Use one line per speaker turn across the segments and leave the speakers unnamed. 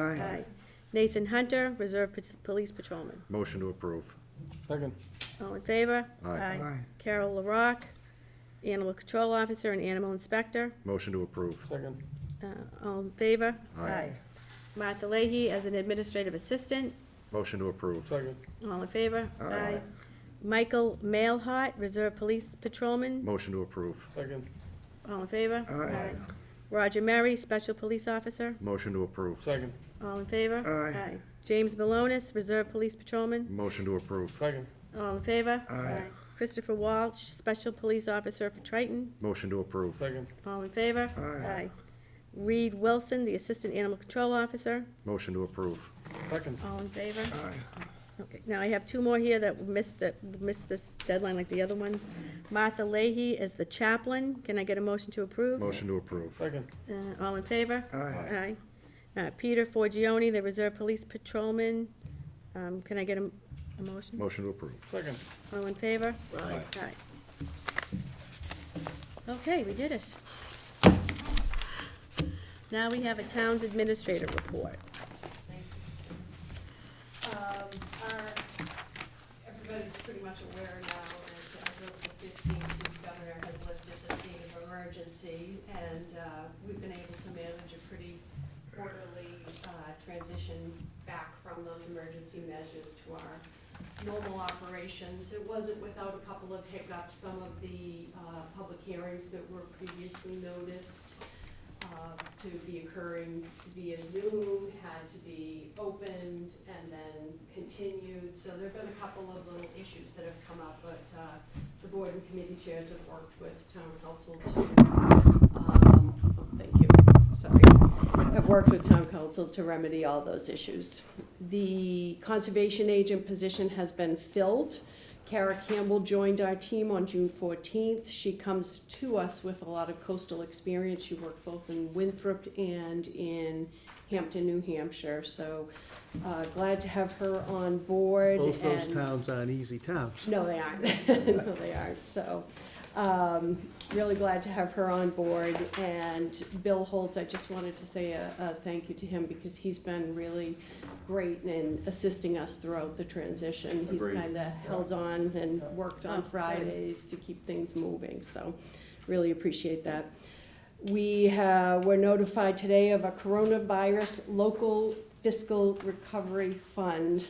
Aye. Nathan Hunter, Reserve Pat- Police Patrolman.
Motion to approve.
Second.
All in favor?
Aye.
Aye.
Carol LaRock, Animal Control Officer and Animal Inspector.
Motion to approve.
Second.
Uh, All in favor?
Aye.
Martha Leahy as an Administrative Assistant.
Motion to approve.
Second.
All in favor? Aye. Michael Mailhot, Reserve Police Patrolman.
Motion to approve.
Second.
All in favor?
Aye.
Roger Murray, Special Police Officer.
Motion to approve.
Second.
All in favor?
Aye.
James Malonis, Reserve Police Patrolman.
Motion to approve.
Second.
All in favor?
Aye.
Christopher Walsh, Special Police Officer for Triton.
Motion to approve.
Second.
All in favor?
Aye.
Reed Wilson, the Assistant Animal Control Officer.
Motion to approve.
Second.
All in favor?
Aye.
Okay, now I have two more here that missed, that missed this deadline like the other ones. Martha Leahy as the chaplain. Can I get a motion to approve?
Motion to approve.
Second.
Uh, all in favor?
Aye.
Aye. Uh, Peter Forgione, the Reserve Police Patrolman. Um, can I get a, a motion?
Motion to approve.
Second.
All in favor? Aye. Okay, we did it. Now we have a town's administrator report.
Um, our, everybody's pretty much aware now that as of the fifteenth, the governor has lifted the state of emergency, and, uh, we've been able to manage a pretty orderly, uh, transition back from those emergency measures to our normal operations. It wasn't without a couple of hiccups, some of the, uh, public hearings that were previously noticed, uh, to be occurring via Zoom, had to be opened and then continued. So there've been a couple of little issues that have come up, but uh, the board and committee chairs have worked with town council to, um, thank you, sorry, have worked with town council to remedy all those issues. The conservation agent position has been filled. Kara Campbell joined our team on June fourteenth. She comes to us with a lot of coastal experience. She worked both in Winthrop and in Hampton, New Hampshire, so, uh, glad to have her on board
Both those
and-
towns aren't easy towns.
no, they aren't. No, they aren't. So, um, really glad to have her on board. And Bill Holt, I just wanted to say a, a thank you to him because he's been really great in assisting us throughout the transition. He's
Agreed.
kinda held on and worked
Oh,
on
good.
Fridays to keep things moving, so really appreciate that. We have, were notified today of a coronavirus local fiscal recovery fund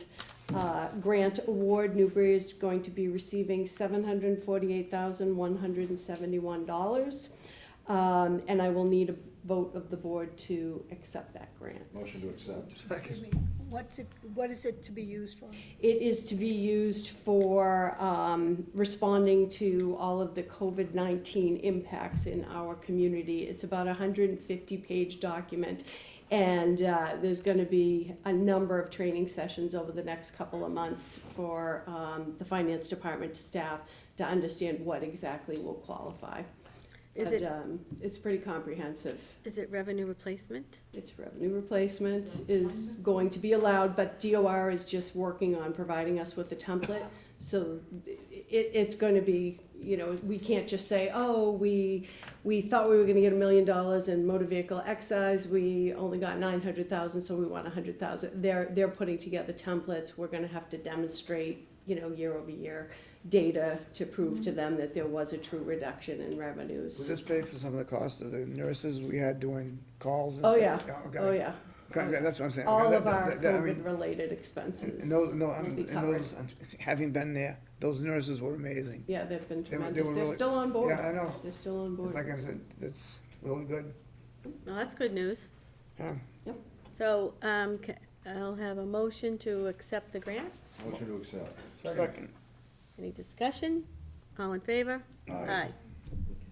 uh, grant award. Newbury is going to be receiving seven hundred and forty-eight thousand, one hundred and seventy-one dollars. Um, and I will need a vote of the board to accept that grant.
Motion to accept.
Excuse me, what's it, what is it to be used for?
It is to be used for um, responding to all of the COVID-19 impacts in our community. It's about a 150-page document, and uh, there's going to be a number of training sessions over the next couple of months for um, the finance department staff to understand what exactly will qualify.
Is
But,
it,
um, It's pretty comprehensive
is it revenue replacement?
its revenue replacement is going to be allowed, but DOR is just working on providing us with a template. So it, it's gonna be, you know, we can't just say, oh, we, we thought we were gonna get a million dollars in motor vehicle excise, we only got nine hundred thousand, so we want a hundred thousand. They're, they're putting together templates, we're gonna have to demonstrate, you know, year over year data to prove to them that there was a true reduction in revenues.
Does this pay for some of the cost of the nurses we had doing calls and
Oh,
stuff?
yeah,
okay.
oh, yeah.
Okay, that's what I'm saying.
all
Okay,
of
that-
our
that- that- I mean,
COVID-related expenses.
And those, no,
will
I'm-
be
and
covered.
those, I'm- having been there, those nurses were amazing.
Yeah, they've been
they were
tremendous. They're
really-
still on board.
Yeah, I know.
They're still on
It's
board.
Like I said, it's really good.
Well, that's good news.
Yeah.
So, um, ca- I'll have a motion to accept the grant.
Motion to accept.
Second.
Any discussion? All in favor? Aye.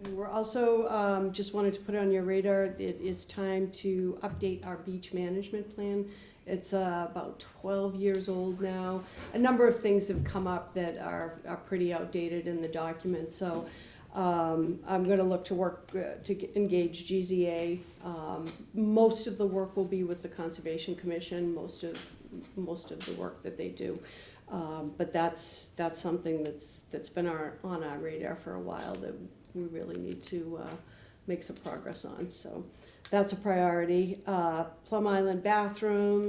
And We're also, um, just wanted to put on your radar, it is time to update our beach management plan. It's uh, about twelve years old now. A number of things have come up that are, are pretty outdated in the document, so, um, I'm gonna look to work, uh, to g- engage GZA. Um, most of the work will be with the Conservation Commission, most of, most of the work that they do. Um, but that's, that's something that's, that's been our, on our radar for a while, that we really need to uh, make some progress on. So that's a priority. Uh, Plum Island bathroom,